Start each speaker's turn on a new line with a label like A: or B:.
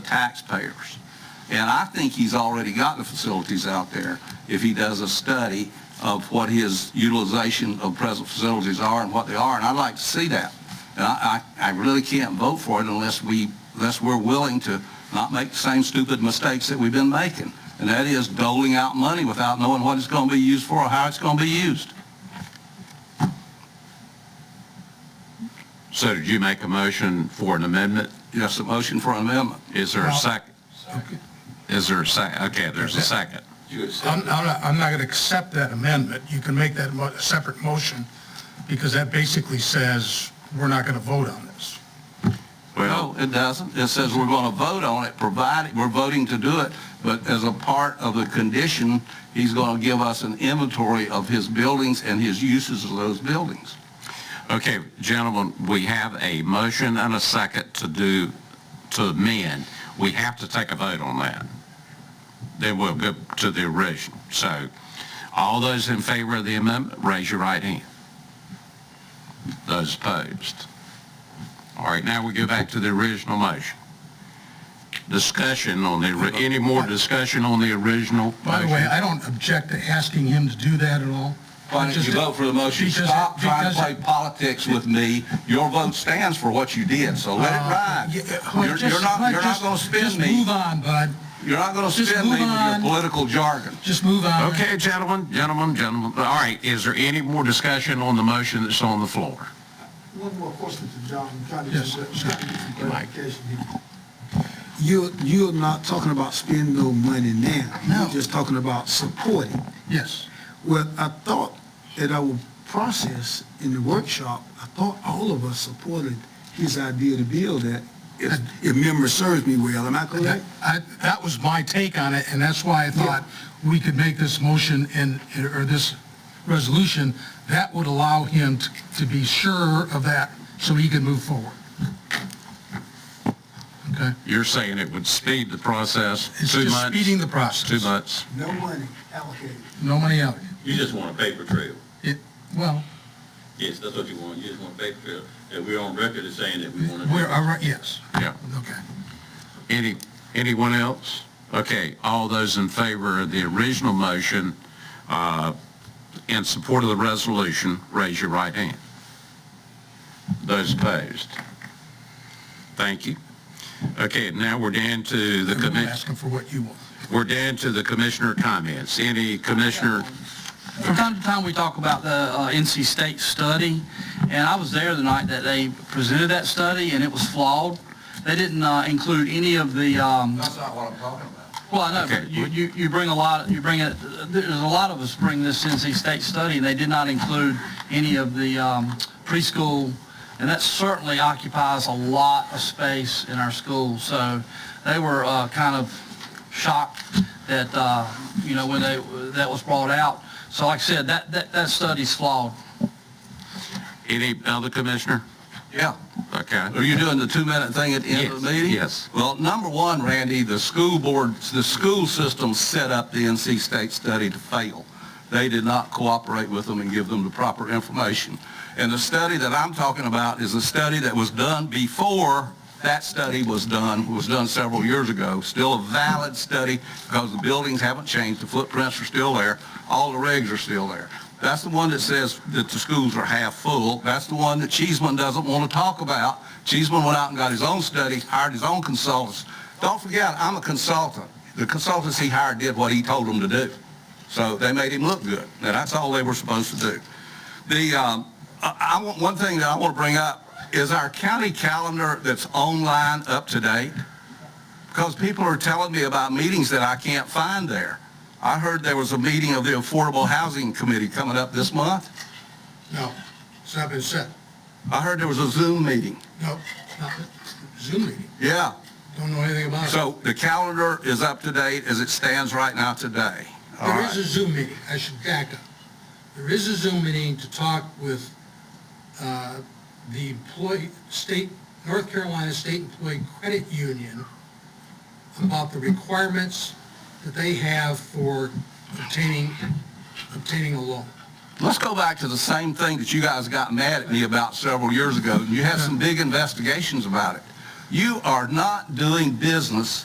A: taxpayers. And I think he's already got the facilities out there if he does a study of what his utilization of present facilities are and what they are, and I'd like to see that. And I, I, I really can't vote for it unless we, unless we're willing to not make the same stupid mistakes that we've been making. And that is doling out money without knowing what it's going to be used for or how it's going to be used.
B: So did you make a motion for an amendment?
A: Yes, a motion for an amendment.
B: Is there a second? Is there a second? Okay, there's a second.
C: I'm, I'm not, I'm not going to accept that amendment. You can make that mo- a separate motion, because that basically says, we're not going to vote on this.
B: Well,
A: No, it doesn't. It says we're going to vote on it, provided, we're voting to do it, but as a part of the condition, he's going to give us an inventory of his buildings and his uses of those buildings.
B: okay, gentlemen, we have a motion and a second to do, to amend. We have to take a vote on that. Then we'll go to the original. So all those in favor of the amendment, raise your right hand. Those opposed. All right, now we go back to the original motion. Discussion on the, ori- any more discussion on the original motion?
C: By the way, I don't object to asking him to do that at all.
A: Why don't you vote for the motion?
C: Because-
A: Stop trying to
C: because- uh,
A: play politics with me. Your vote stands for what you did, so let it ride.
C: Yeah, uh, well,
A: You're you're
C: just-
A: not,
C: well,
A: you're not
C: just-
A: going to
C: Just
A: spin
C: move
A: me.
C: on, bud.
A: You're not going to
C: just
A: spin me
C: move
A: with your
C: on.
A: political jargon.
C: Just move on.
B: Okay, gentlemen, gentlemen, gentlemen. All right, is there any more discussion on the motion that's on the floor?
D: One more question to John, trying to get
C: Yes,
D: some
C: sir.
D: trying to get some
B: Mike.
D: clarification here.
E: You're, you're not talking about spending no money now.
C: No.
E: You're just talking about supporting.
C: Yes.
E: Well, I thought that our process in the workshop, I thought all of us supported his idea to build that, if, if memory serves me well, am I
C: That,
E: correct?
C: I, that was my take on it, and that's why I thought we could make this motion and, or this resolution. That would allow him to, to be sure of that, so he can move forward. Okay?
B: You're saying it would speed the process
C: It's
B: two
C: just speeding
B: months?
C: the process.
B: Two months?
D: No money allocated.
C: No money out.
F: You just want a paper trail.
C: It, well,
F: Yes, that's what you want. You just want a paper trail. And we're on record as saying that we want to do
C: we're,
F: it.
C: all right, yes,
B: Yeah.
C: okay.
B: Any, anyone else? Okay, all those in favor of the original motion, uh, in support of the resolution, raise your right hand. Those opposed? Thank you. Okay, now we're down to the
C: I'm
B: commission.
C: asking for what you want.
B: We're down to the commissioner comments. Any commissioner,
G: From time to time, we talk about the uh, NC State study, and I was there the night that they presented that study, and it was flawed. They didn't uh, include any of the, um,
A: not what I'm talking about.
G: well, I know,
B: Okay.
G: but you, you you bring a lot, you bring it, there's a lot of us bring this NC State study, and they did not include any of the um, preschool, and that certainly occupies a lot of space in our schools. So they were uh, kind of shocked that, uh, you know, when they, that was brought out. So like I said, that, that, that study's flawed.
B: any other commissioner?
A: Yeah.
B: Okay.
A: Are you doing the two-minute thing at the end of the
B: Yes,
A: meeting?
B: yes.
A: Well, number one, Randy, the school board, the school system set up the NC State study to fail. They did not cooperate with them and give them the proper information. And the study that I'm talking about is a study that was done before that study was done, was done several years ago. Still a valid study because the buildings haven't changed, the footprints are still there, all the regs are still there. That's the one that says that the schools are half full. That's the one that Cheeseman doesn't want to talk about. Cheeseman went out and got his own study, hired his own consultants. Don't forget, I'm a consultant. The consultants he hired did what he told them to do. So they made him look good. Now, that's all they were supposed to do. The, um, I, I want, one thing that I want to bring up is our county calendar that's online up to date because people are telling me about meetings that I can't find there. I heard there was a meeting of the Affordable Housing Committee coming up this month.
C: No, it's not been said.
A: I heard there was a Zoom meeting.
C: No, it's not, Zoom meeting,
A: Yeah,
C: don't know anything about it.
A: so the calendar is up to date as it stands right now today. All
C: There is
A: right,
C: a Zoom meeting, I should back up. There is a Zoom meeting to talk with, uh, the employee, state, North Carolina State Employee Credit Union about the requirements that they have for obtaining, obtaining a loan.
A: let's go back to the same thing that you guys got mad at me about several years ago. and You had some big investigations about it. You are not doing business